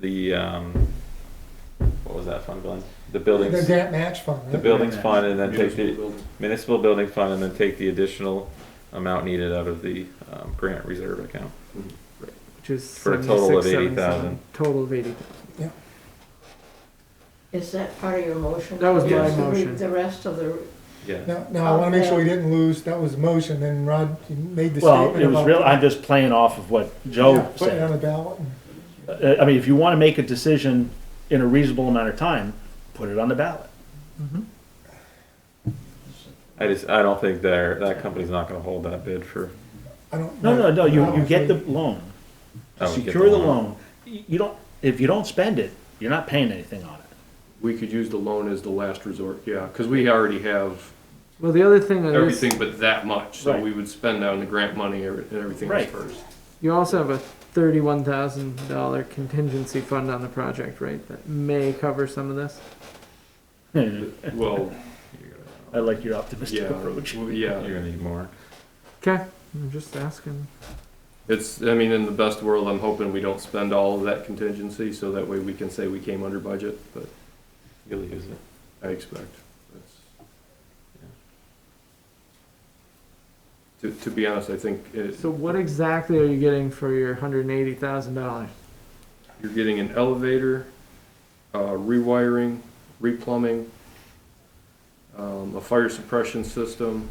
the, um, what was that fund, Glenn? The The buildings, grant match fund, the right? buildings fund and then take Municipal the building. municipal building fund and then take the additional amount needed out of the, um, grant reserve account. which is For a total of 76,777, 80,000. Total of eighty. Is that part of your motion? That was my Yes. motion. The rest of the, Yeah, No, no, I wanna make sure we didn't lose, that was the motion, and Rod, you made the statement Well, about. it was real, I'm just playing off of what Yeah, Joe Putting it on said. the ballot, and- Uh, I mean, if you want to make a decision in a reasonable amount of time, put it on the ballot. I just, I don't think they're, that company's not gonna hold that bid for. oh, I don't. No, no, no, you, you get the Honestly, loan, I would get secure the loan. Y- You don't, if you don't spend it, you're not paying anything on it. We could use the loan as the last resort, yeah, because we already have Well, the other thing that is, everything but that much, so Right. we would spend down the grant money or- and everything else Right. first. you also have a thirty-one thousand dollar contingency fund on the project, right? That may cover some of this. Well, I like your optimistic yeah, approach. well, yeah, You're gonna need more. Okay, I'm just asking. it's, I mean, in the best world, I'm hoping we don't spend all of that contingency, so that way we can say we came under budget, but You'll use it. I expect. that's- To, to be honest, I think it, So what exactly are you getting for your hundred and eighty thousand dollars? You're getting an elevator, uh, rewiring, replumbing, um, a fire suppression system,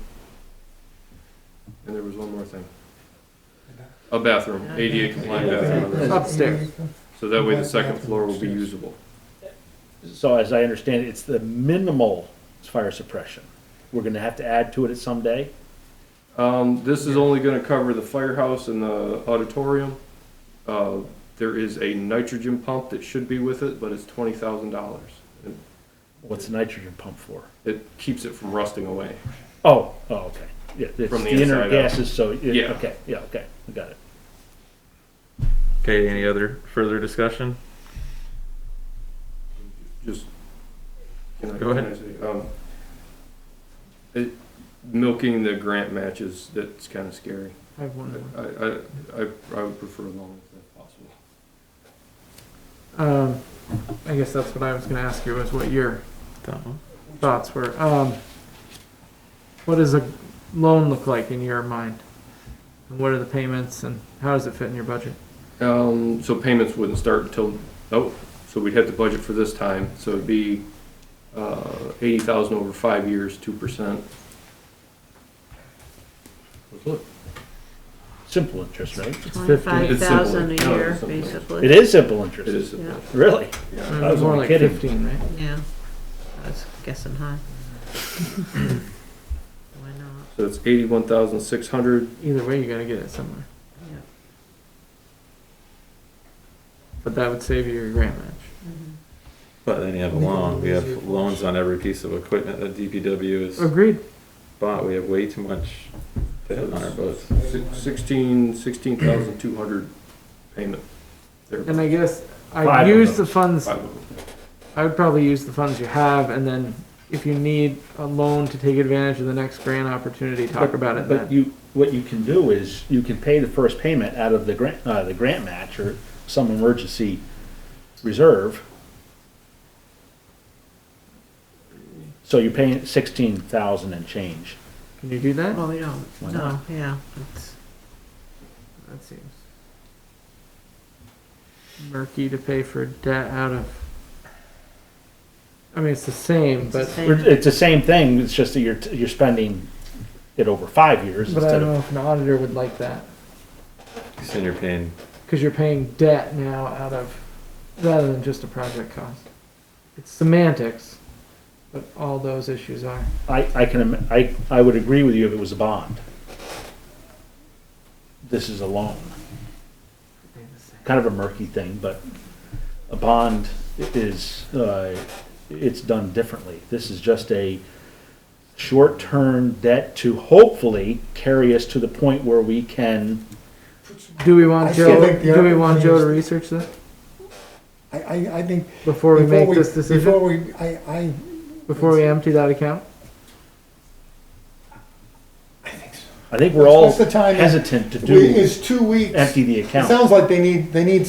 and there was one more thing. A bathroom, ADA compliant bathroom. Upstairs. So that way the second floor will be usable. So as I understand it, it's the minimal fire suppression. We're gonna have to add to it at some day. Um, this is only gonna cover the firehouse and the auditorium. Uh, there is a nitrogen pump that should be with it, but it's twenty thousand dollars. What's the nitrogen pump for? It keeps it from rusting away. Oh, oh, okay. Yeah, it's From the the inside inner out. gases, so, yeah, Yeah. okay, yeah, okay, I got it. Okay, any other further discussion? just. can I- Go can I ahead. say, um, It, milking the grant matches, that's kinda scary. I have one more. I, I, I, I would prefer long if possible. Um, I guess that's what I was gonna ask you, was what your That one? thoughts were. Um, what does a loan look like in your mind? And what are the payments and how does it fit in your budget? Um, so payments wouldn't start until, oh, so we'd have to budget for this time, so it'd be, uh, eighty thousand over five years, two percent. Simple interest, right? twenty-five thousand It's a simple. No, year, it's simple. basically. It is simple It interest. is, Yeah. Really? yeah. Maybe I was more only like kidding. fifteen, right? Yeah, I was guessing high. Why not? So it's eighty-one thousand six hundred, Either way, you gotta get it somewhere. Yeah. But that would save you your grant match. Mm-hmm. But then you have a loan, we have loans on every piece of equipment that DPW has Agreed. bought, we have way too much debt on our books. sixteen, sixteen thousand two hundred payment. There, And I guess Five I'd of use the those. funds, five of them. I would probably use the funds you have and then if you need a loan to take advantage of the next grant opportunity, talk about it But then. you, what you can do is, you can pay the first payment out of the grant, uh, the grant match or some emergency reserve. So you're paying sixteen thousand and change. Can you do that? Well, we don't, Why no, not? yeah, it's, That seems murky to pay for debt out of. I mean, it's the same, it's the but same. It's the same thing, it's just that you're, you're spending it over five years but I instead don't of. know if an auditor would like that So you're paying, because you're paying debt now out of rather than just a project cost. It's semantics, but all those issues are. I, I can, im- I, I would agree with you if it was a bond. This is a loan, kind of a murky thing, but a bond is, uh, it's done differently. This is just a short-term debt to hopefully carry us to the point where we can, Do we want I still Joe? think the Do we want other Joe to thing research this I, I, I think. before we before make this decision? Before we, I, I, Before we empty that account? I think so. I think we're all What's the time? hesitant to We- do, It's two weeks. empty the It account. sounds like they need, they need